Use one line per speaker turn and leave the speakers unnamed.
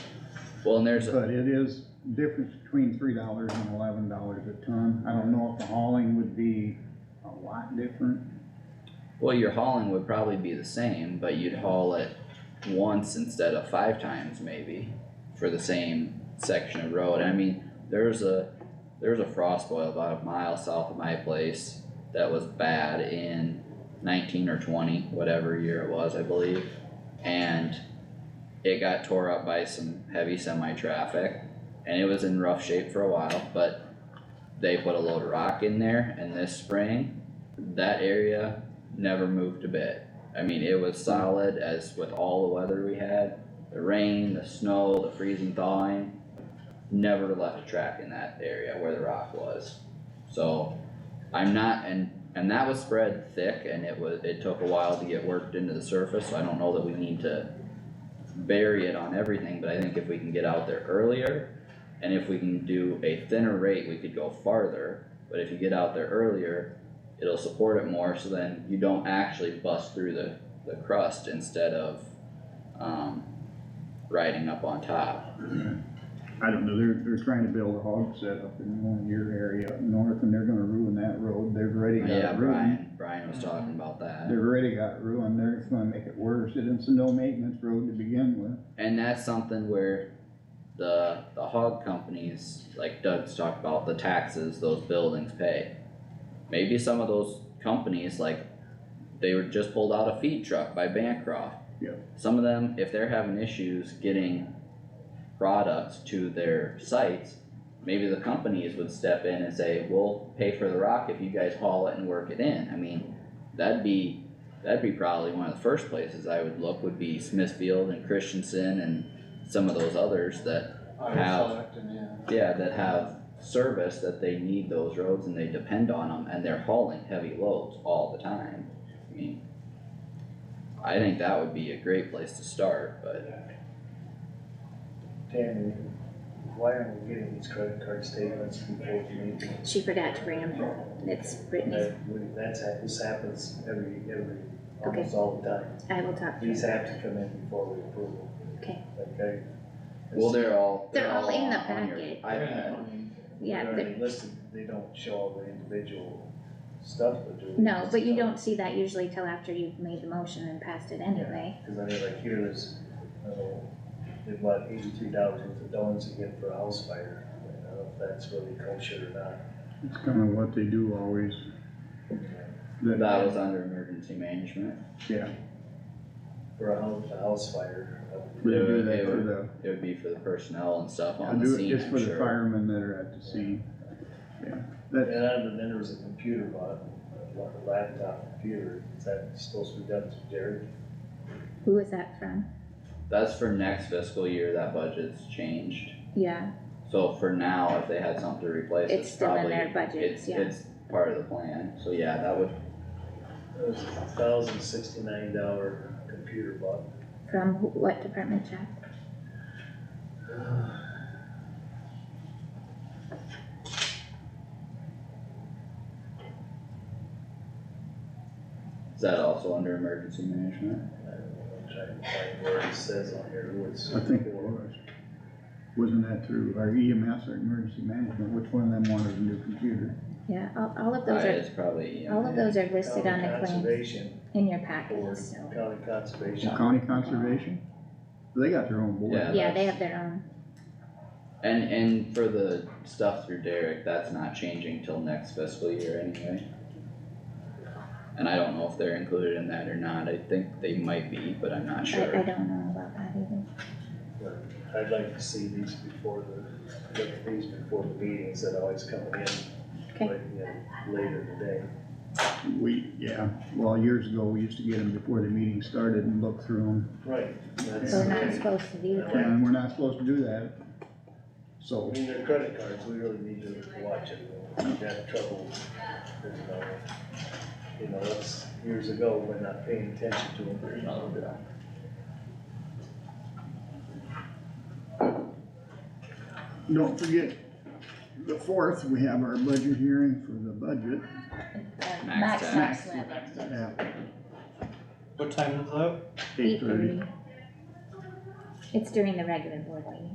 Well, and there's, a
But it is difference between three dollars and eleven dollars a ton. I don't know if the hauling would be a lot different.
well, your hauling would probably be the same, but you'd haul it once instead of five times maybe for the same section of road. I mean, there's a, there's a frost boil about a mile south of my place that was bad in nineteen or twenty, whatever year it was, I believe. And it got tore up by some heavy semi-traffic and it was in rough shape for a while, but they put a load of rock in there and this spring, that area never moved a bit. I mean, it was solid as with all the weather we had, the rain, the snow, the freezing thawing. Never left a track in that area where the rock was. So I'm not, and, and that was spread thick and it was, it took a while to get worked into the surface, so I don't know that we need to bury it on everything, but I think if we can get out there earlier and if we can do a thinner rate, we could go farther, but if you get out there earlier, it'll support it more, so then you don't actually bust through the, the crust instead of, um, riding up on top.
I don't know, they're, they're trying to build a hog set up in one of your area up north and they're gonna ruin that road. They've already got
Yeah,
it
Brian,
ruined.
Brian was talking about that.
They've already got it ruined. They're just gonna make it worse. It is a no maintenance road to begin with.
And that's something where the, the hog companies, like Doug's talked about, the taxes those buildings pay. Maybe some of those companies, like, they were just pulled out a feed truck by Bancroft.
Yep.
Some of them, if they're having issues getting products to their sites, maybe the companies would step in and say, we'll pay for the rock if you guys haul it and work it in. I mean, that'd be that'd be probably one of the first places I would look would be Smithfield and Christensen and some of those others that,
I
Have-
was selecting, yeah.
yeah, that have service that they need those roads and they depend on them and they're hauling heavy loads all the time. I mean, I think that would be a great place to start, but
Tammy, why aren't we getting these credit card statements from Fourth Main?
She forgot to bring them home. It's Brittany's.
That, we- that's, hap- this happens every, every, almost all the time.
I will talk to
These
her.
have to come in before we approve them.
Okay.
Okay?
well, they're all.
They're all in the
on- on your
packet.
iPad.
Yeah,
They're
but-
already listed, they don't show all the individual stuff, but do they?
No, but you don't see that usually till after you've made the motion and passed it anyway.
Cause I mean, like here is, I don't know, they bought eighty-three dollars worth of donuts again for a house fire. I don't know if that's really kosher or not.
It's kinda what they do always. That-
That was under emergency management.
Yeah,
For a house, a house fire. I would-
they do
They
that
were-
for the,
It would be for the personnel and stuff
I
on the
do
scene,
it just
I'm
for the
sure.
firemen that are at the scene.
And then then there was a computer bought, like a laptop computer, is that supposed to be done through Jared?
Who is that from?
That's for next fiscal year, that budget's changed.
Yeah,
So for now, if they had something to replace,
It's
it's
still in
probably,
their
it's,
budgets, yeah.
it's part of the plan, so yeah, that would,
It was a thousand sixty-nine dollar computer bought.
from wh- what department, Jack?
is that also under emergency management?
I don't know, I'm trying to find where it says on here who it's.
I think it was. Wasn't that through our EMS or emergency management? Which one of them wanted a new computer?
Yeah, all, all of those
Uh,
are,
It's probably,
all
EMA.
of those are listed
County
on the claims
Conservation
in your
Board,
packet, so.
County Conservation.
County Conservation? They got their own board.
Yeah.
Yeah, they have their own.
and, and for the stuff through Derek, that's not changing till next fiscal year anyway. And I don't know if they're included in that or not, I think they might be, but I'm not
I, I
sure.
don't know about that either.
I'd like to see these before the, look at these before the meetings that always come in.
Okay.
like, you know, Later in the day.
We, yeah, well, years ago, we used to get them before the meeting started and look through them.
Right. That's
We're
the
not
way-
supposed to do that.
And we're not supposed to do that.
I
So,
mean, their credit cards, we really need to watch it, we got trouble, with, uh, you know, that's years ago, we're not paying attention to them.
don't forget, the fourth, we have our budget hearing for the budget.
Uh,
Max
Max,
tax.
Max Webb.
at
What time is that?
8:30.
Eight thirty. It's during the regular board meeting.